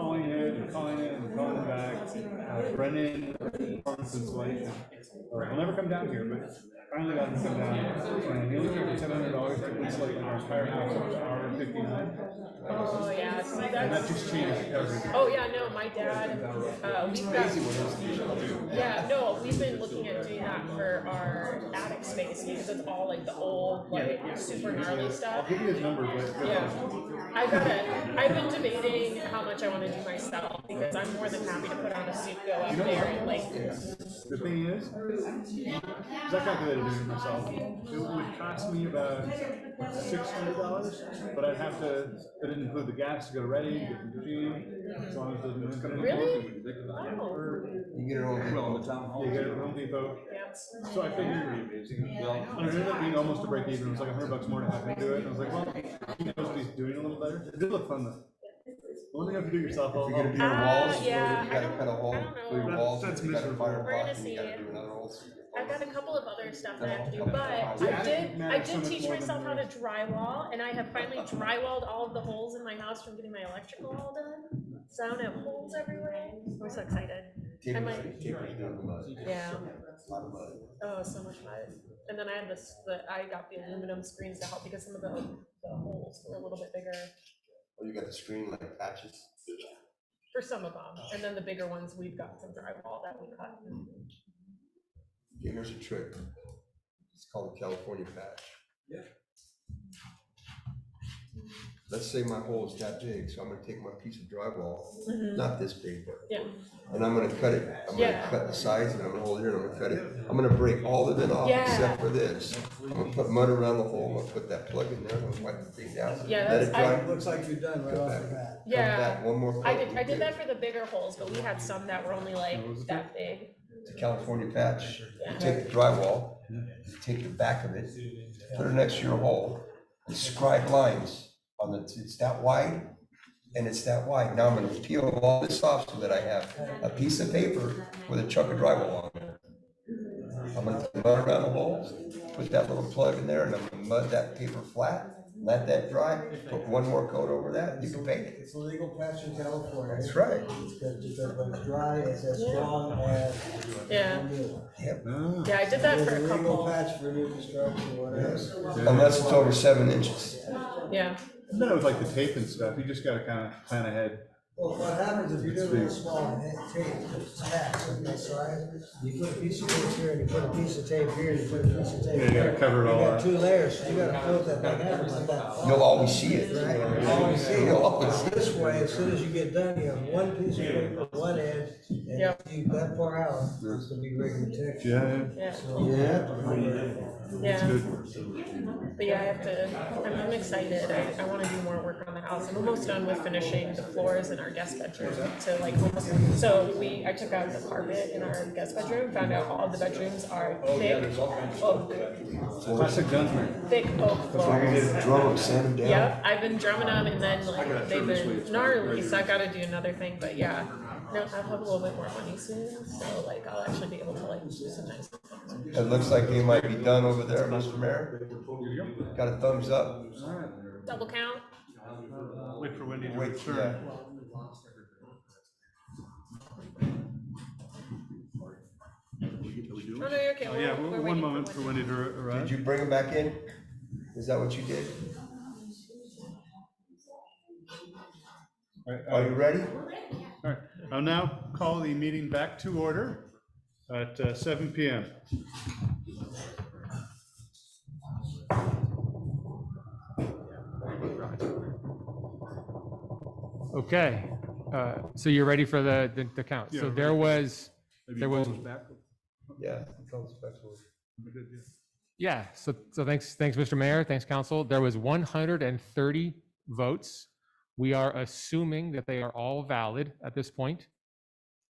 kept calling in and calling back. Uh, Brennan, Parkinson's wife, uh, will never come down here, but finally got to come down. And he only gave seven hundred dollars to insulate our entire house, which was hour and fifty-nine. Oh, yeah, see, And that that's, just changed everything. oh, yeah, no, my dad, uh, we've got. Yeah, no, we've been looking at doing that for our attic space, because it's all like the old, like, super gnarly I'll stuff. give you his number, but. uh, Yeah, I gotta, I've been debating how much I wanna do myself, because I'm more than happy to put on a suit, go up there and like, The thing is, because I calculated this myself, it would cost me about six hundred dollars, but I'd have to, it didn't include the gas to go to Reading, get the machine, as long as it doesn't. Really? You get it all well on the town hall. You get it from Home Depot, yeah. so I figured, Well, and it ended up being almost a break even, it was like a hundred bucks more to have him do it, and I was like, well, he knows what he's doing a little better, it did look fun though. The one thing you have to do yourself, if I'll, you're gonna be on Uh, walls, you yeah, I gotta don't- cut a hole I don't through your know. walls, That's- you gotta that's fire a miserable. We're block, gonna and you see gotta it. do another hole. so your I've got walls- a couple of other stuff that I have to do, but I did, I did teach myself how to drywall, and I have finally drywalled all of the holes in my house from getting my electrical all done. So I don't have holes everywhere. I'm so excited. Tape I it- might- tape it down to mud. Yeah. A lot of mud. Oh, so much fun. And then I had this, the, I got the aluminum screens to help because some of the, the holes were a little bit bigger Or Oh, you got the screen like patches. for some of them. And then the bigger ones, we've got some drywall that we cut. Yeah, here's a trick. It's called a California patch. Yeah. Let's say my hole is that big, so I'm gonna take my piece of drywall, Mhm. not this big, but. Yeah. And I'm gonna cut it, I'm gonna Yeah. cut the sides and I'm gonna hold it here and I'm gonna cut it, I'm gonna break all of it off except Yeah. for this. I'm gonna put mud around the hole, I'm gonna put that plug in there, I'm gonna wipe the thing down. Yeah, let it that's- I- dry. It looks like you're done right off the bat. come Yeah, back, One more. I coat, did, I you're did that good. for the bigger holes, but we had some that were only like that big. It's a California patch. You Yeah. take the drywall, you take the back of it, put it next to your hole, and scribe lines on the, it's that wide, and it's that wide. Now I'm gonna peel all this off so that I have a piece of paper with a chunk of drywall on it. I'm gonna mud around the holes, put that little plug in there, and I'm gonna mud that paper flat, let that dry, put one more coat over that, you can bake it. It's a legal patch in California. That's right. It's good, just everybody's dry, it's as strong as. Yeah. Ah. Yeah, I did that There's for a a legal couple. patch for new construction, whatever. Unless it's over seven inches. Yeah, And then it was like the tape and stuff, you just gotta kinda plan ahead. Well, what happens if you do it real small and it tape just smacks on the side? You put a piece of tape here and you put a piece of tape here and you put a piece of tape. Yeah, you gotta here. cover it all You got up. two layers, so you gotta fill that thing up like that. You'll always see it. Right, you always see You'll always see it. it. This way, as soon as you get done, you have one piece of paper, one edge, and if Yep. you that far out, it's gonna be regular texture. Yeah, yeah, So you have to remember yeah. But yeah, I have to, I'm, I'm excited. I, I wanna do more work on the house. I'm almost done with finishing the floors in our guest bedroom. So like, almost- so we, I took out the carpet in our guest bedroom, found out all the bedrooms are thick, oak, classic Dunsmere. thick oak floors. Drum them, sand them down. Yep, I've been drumming them and then like, they've been gnarly, so I gotta do another thing, but yeah. No, I'll have a little bit more money soon, so like, I'll actually be able to like do some nice. It looks like they might be done over there, Mr. Mayor. Got a thumbs up. Double count? Wait for Wendy Wait, yeah. Oh, no, you're okay. Oh, We're- yeah, one- we're waiting one moment for Wendy. Wendy to ar- Did arrive. you bring them back in? Is that what you did? All right, Are you ready? All right, I'll now call the meeting back to order at uh, seven PM. Okay, uh, so you're ready for the, the, the count. Yeah, So ready. there was, There was- Yeah. tell us back to us. yeah, so, so thanks, thanks, Mr. Mayor, thanks, council. There was one hundred and thirty votes. We are assuming that they are all valid at this point,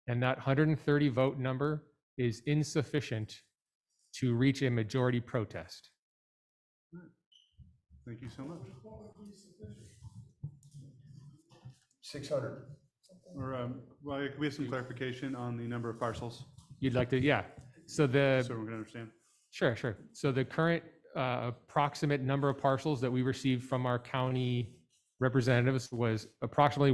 And that hundred and thirty vote number is insufficient to reach a majority protest. Thank you so much. Six hundred. Or, um, well, we have some clarification on the number of parcels, You'd like to, yeah. So the. so we're gonna understand. Sure, sure. So the current uh, approximate number of parcels that we received from our county representatives was approximately